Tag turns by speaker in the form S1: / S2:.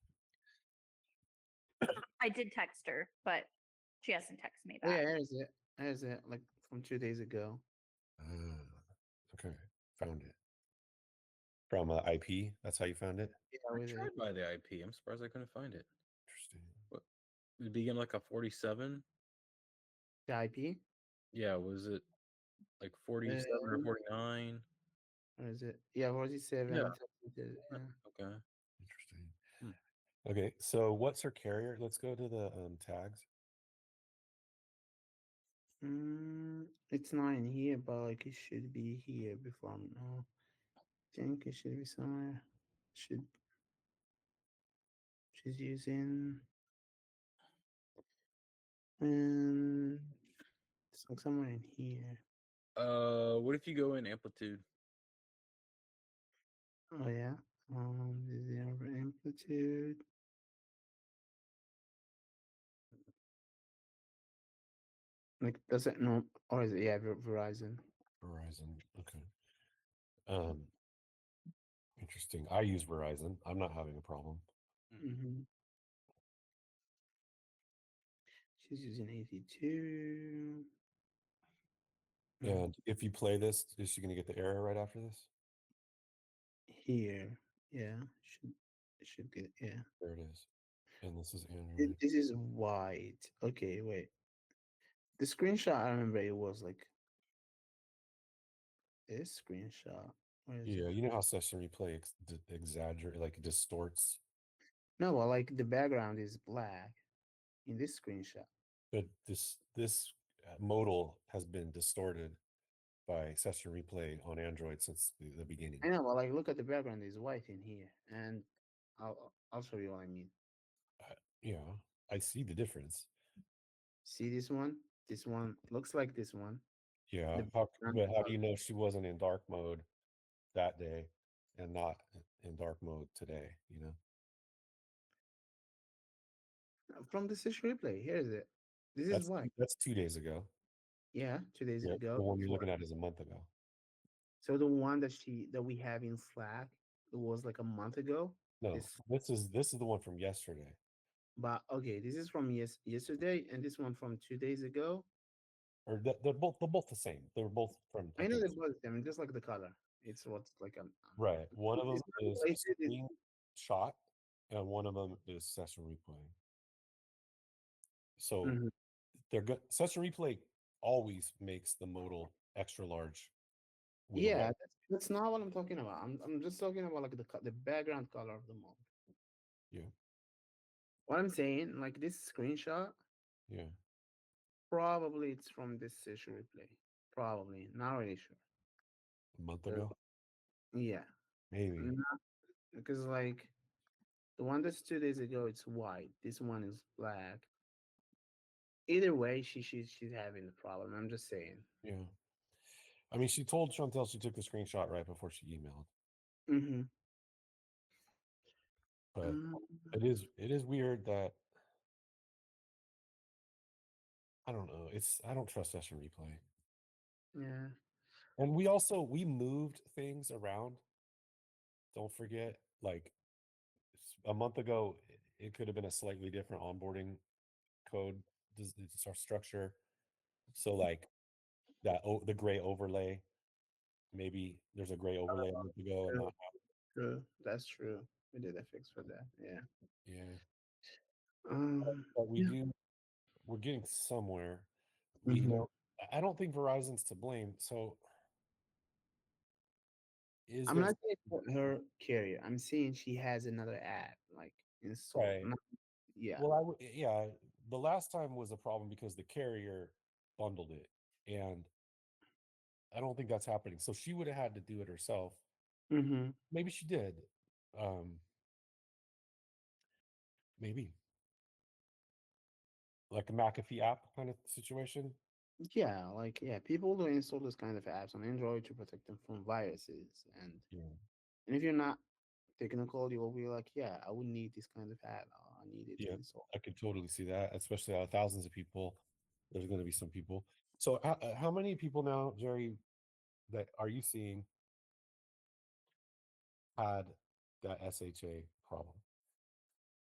S1: I did text her, but she hasn't texted me
S2: Yeah,
S1: back.
S2: there is it. There is it. Like from two days ago.
S3: Ah, okay, found it from uh, IP. That's how you found it.
S2: Yeah,
S4: I
S2: with it.
S4: tried by the IP. I'm surprised I couldn't find it.
S3: Interesting.
S4: Did it begin like a 47?
S2: the IP.
S4: Yeah, was it like 47 or
S2: Um,
S4: 49?
S2: Or is it? Yeah, forty-seven.
S4: Yeah.
S2: something to- yeah.
S4: Okay.
S3: Interesting.
S4: Hmm.
S3: Okay, so what's her carrier? Let's go to the um, tags.
S2: Mm, it's not in here, but like it should be here before I'm no. I think it should be somewhere. Should she's using um it's like somewhere in here.
S4: Uh, what if you go in amplitude?
S2: Oh yeah. Um the zero amplitude. Like does it no or is it yeah Ver- Verizon?
S3: Verizon. Okay. Um. Interesting. I use Verizon. I'm not having a problem.
S2: Mm-hmm. She's using 82. Mm,
S3: And if you play this, is she going to get the error right after this?
S2: Here. Yeah. Should should get yeah.
S3: There it is. And this is
S2: Th-
S3: Android.
S2: This is white. Okay, wait. The screenshot I remember it was like this screenshot. Where is it?
S3: Yeah, you know how session replay ex- exaggerate like distorts,
S2: No, well like the background is black in this screenshot.
S3: but this this uh, modal has been distorted by session replay on Android since the, the beginning.
S2: I know, well like look at the background is white in here. And I'll I'll show you what I mean.
S3: Yeah, I see the difference.
S2: See this one? This one looks like this one.
S3: Yeah, how, c-
S2: background
S3: but how
S2: color.
S3: do you know she wasn't in dark mode that day and not in dark mode today? You know,
S2: Uh, From the session replay, here is it. This
S3: that's
S2: is why.
S3: that's two days ago.
S2: Yeah, two days
S3: Yeah,
S2: ago.
S3: the one you're
S2: before-
S3: looking at is a month ago.
S2: So the one that she that we have in Slack, it was like a month ago.
S3: No,
S2: It's-
S3: this is this is the one from yesterday.
S2: But okay, this is from yes yesterday, and this one from two days ago.
S3: Or th- they're both they're both the same. They're both from.
S2: I know
S3: think,
S2: they both them, just like the color. It's what's like a
S3: Right. One of them
S2: It's not
S3: is
S2: related, it's-
S3: screen shot, and one of them is session replay. So
S2: Mhm.
S3: they're good. Session replay always makes the modal extra large. with
S2: yeah.
S3: white.
S2: That's, that's not what I'm talking about. I'm I'm just talking about like the co- the background color of the mob.
S3: Yeah.
S2: What I'm saying, like this screenshot,
S3: Yeah.
S2: probably it's from this session replay. Probably not really sure.
S3: A month
S2: Yeah.
S3: ago,
S2: Yeah,
S3: maybe.
S2: Not, because like the one that's two days ago, it's white. This one is black. Either way, she she she's having the problem. I'm just saying.
S3: Yeah. I mean, she told Chantel she took the screenshot right before she emailed,
S2: Mm-hmm. Um,
S3: but it is it is weird that I don't know. It's I don't trust session replay.
S2: yeah.
S3: And we also we moved things around. Don't forget, like s- a month ago, i- it could have been a slightly different onboarding code dis- dis- our structure. So
S2: Mm-hmm.
S3: like that o- the gray overlay, maybe there's a gray
S2: Uh-huh.
S3: overlay a month ago. And
S2: true.
S3: not,
S2: True. That's true. We did a fix for that. Yeah.
S3: yeah,
S2: Um,
S3: but we
S2: Yeah.
S3: do. We're getting somewhere. We, you
S2: Mhm.
S3: know, I- I don't think Verizon's to blame. So is
S2: I'm
S3: there
S2: not saying for her carrier. I'm saying she has another app like installed.
S3: Right.
S2: not- yeah.
S3: Well, I w- yeah, the last time was a problem because the carrier bundled it, and I don't think that's happening. So she would have had to do it herself.
S2: mm-hmm.
S3: Maybe she did. Um, maybe like a McAfee app kind of situation.
S2: Yeah, like yeah, people do install this kind of apps on Android to protect them from viruses, and
S3: Yeah.
S2: and if you're not technical, you will be like, yeah, I would need this kind of app. I need it
S3: Yeah.
S2: to install.
S3: I could totally see that, especially out of thousands of people. There's going to be some people. So, how, uh, how many people now, Jerry, that are you seeing had that SHA problem?